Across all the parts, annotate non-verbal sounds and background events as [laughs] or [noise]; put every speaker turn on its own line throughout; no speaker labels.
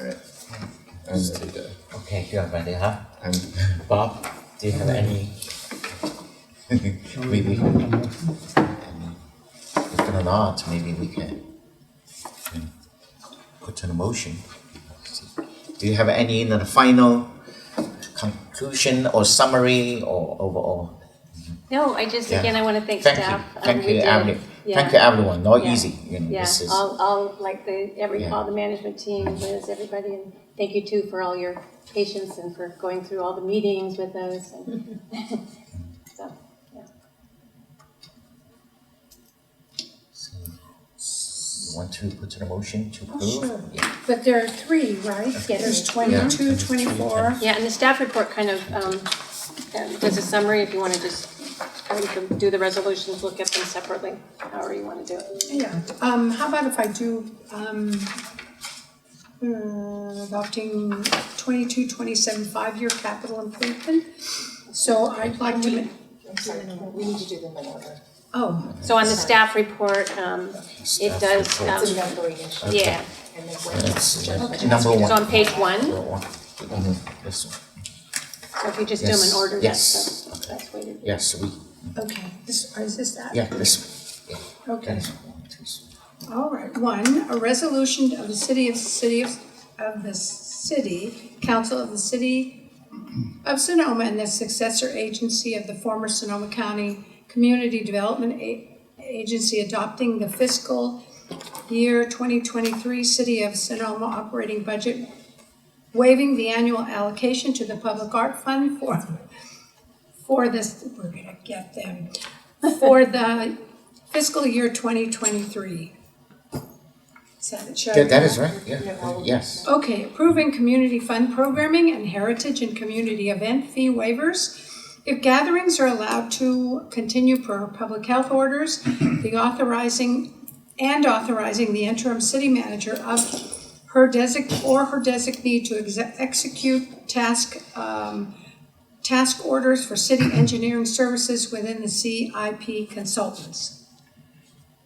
right?
Just take that.
Okay, you are ready, huh?
I'm,
Bob, do you have any?
we, we, if there are not, maybe we can you know, put an emotion. Do you have any you know, the final conclusion or summary or overall?
No, I just,
Yeah.
again, I want to thank
Thank
staff.
you,
Um,
thank
we
you,
did-
Emily.
yeah.
Thank you, everyone. Not
Yeah.
easy, you know,
Yeah,
this is.
all, all, like the, every,
Yeah.
all the management team, Liz, everybody, and thank you too for all your patience and for going through all the meetings with us and. So,
so, you Want to put an emotion
Oh,
to approve?
sure.
Yeah.
But there are three, right?
Yes.
There's twenty-two, twenty-four.
Yeah, and the staff report kind of, um, um, does a summary if you want to just, um, you can do the resolutions, look at them separately, however you want to do it.
Yeah, um, how about if I do, um, uh, adopting twenty-two, twenty-seven, five-year capital improvement? So I'd like to, ma-
I'm sorry, we need to do them in order.
oh,
So on the staff report, um, it
Staff
does,
report.
um,
It's a numbering issue.
yeah,
And then
That's,
when.
uh, number
so
one.
on page one,
Number one. Mhm, This one.
so if you just do them in
Yes,
order,
yes.
that's, the that's way to do it.
Yes, we,
okay, this, is this that?
yeah, this,
Okay.
that's one, two, three.
All right, one, a resolution of the city of, city of, of the city, council of the city of Sonoma and the successor agency of the former Sonoma County Community Development A- Agency adopting the fiscal year twenty twenty-three City of Sonoma operating budget, waiving the annual allocation to the Public Art Fund for, for this, we're gonna get them, for the fiscal year twenty twenty-three. Is that it, Sharon?
Yeah, that is right, yeah,
No.
yes.
Okay, approving community fund programming and heritage and community event fee waivers. If gatherings are allowed to continue per public health orders, the authorizing and authorizing the interim city manager of her desig, or her designee to exe- execute task, um, task orders for city engineering services within the CIP consultants.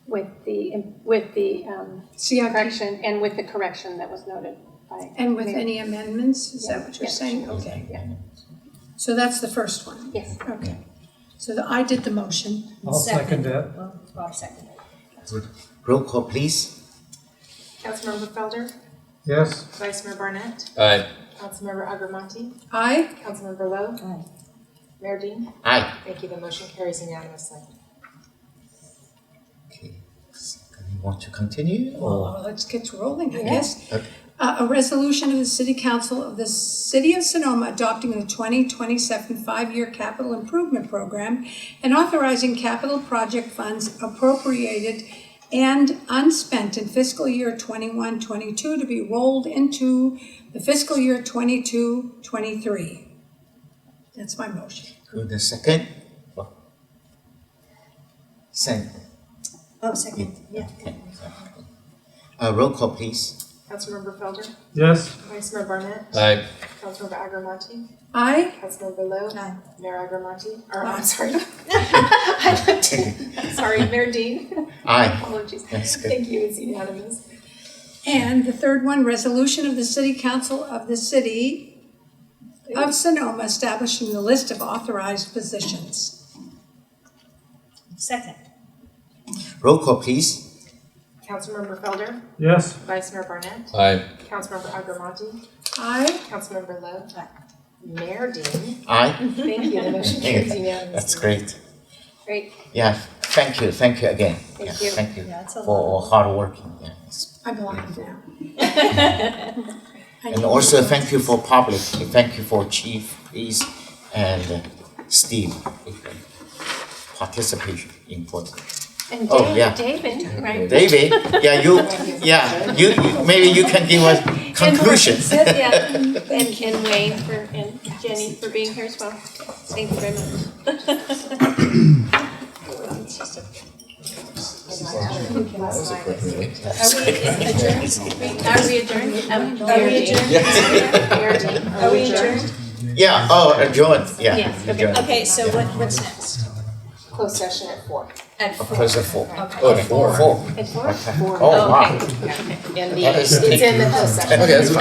With the, with the, um,
CIP,
correction, and with the correction that was noted by.
and with any amendments, is that what you're
Yeah.
saying? Okay, yeah. So that's the first one.
Yes.
Okay, so the, I did the motion.
I'll second that.
Bob second.
Roll call, please.
Councilmember Felder,
Yes,
Vice Mayor Barnett,
Aye.
Councilmember Agarmati,
Aye,
Councilmember Lowe. Mayor Dean,
Aye.
thank you, the motion carries unanimously.
Okay. You want to continue or?
well, let's get rolling, I guess.
Okay.
Uh, a resolution of the City Council of the City of Sonoma adopting the twenty twenty-seven five-year capital improvement program and authorizing capital project funds appropriated and unspent in fiscal year 21-22 to be rolled into the fiscal year 22-23. That's my motion.
Who the second? Well, Second.
Oh,
second, yeah. Uh, roll call, please.
Councilmember Felder,
yes,
Vice Mayor Barnett,
Aye.
Councilmember Agarmati,
Aye.
Councilmember Lowe.
Aye.
Mayor Agarmati, or
Aye.
I'm [laughs] sorry. I looked, sorry, Mayor Dean,
Aye.
apologies.
That's good.
Thank you, it's unanimous.
And the third one, resolution of the city council of the city of Sonoma establishing the list of authorized positions.
Second.
Roll call, please.
Councilmember Felder,
yes,
Vice Mayor Barnett,
Aye.
Councilmember Agarmati,
Aye.
Councilmember Lowe. Mayor Dean.
Aye.
Thank you, the motion
Thank you.
carries
[laughs]
unanimously.
That's great.
Great,
Yeah, thank you, thank you again.
Thank
Yeah,
you.
Thank you
Yeah, it's a
for all hard working, yeah. it's-
I'm blind now. I
[laughs] And
need-
also thank you for public, thank you for Chief, please, and uh, Steve. Participation, important.
and
Oh, yeah.
Dave, David, right? [laughs]
David, yeah, you, yeah, you, you- maybe you can give us conclusions.
And, yeah, and, and Wayne for, and Jenny for being here as well, thank you very much. Are we adjourned? Um,
Oh,
Are we adjourned?
Mayor Dean, are we adjourned?
Yeah, oh, adjourned, yeah,
Yes, okay.
adjourned,
Okay, so what, what's next?
Closed session at four.
At
close the four. Oh, four, four.
At four?
Oh, wow,
Okay.
And
that is.
It's in the closed session.
Okay, that's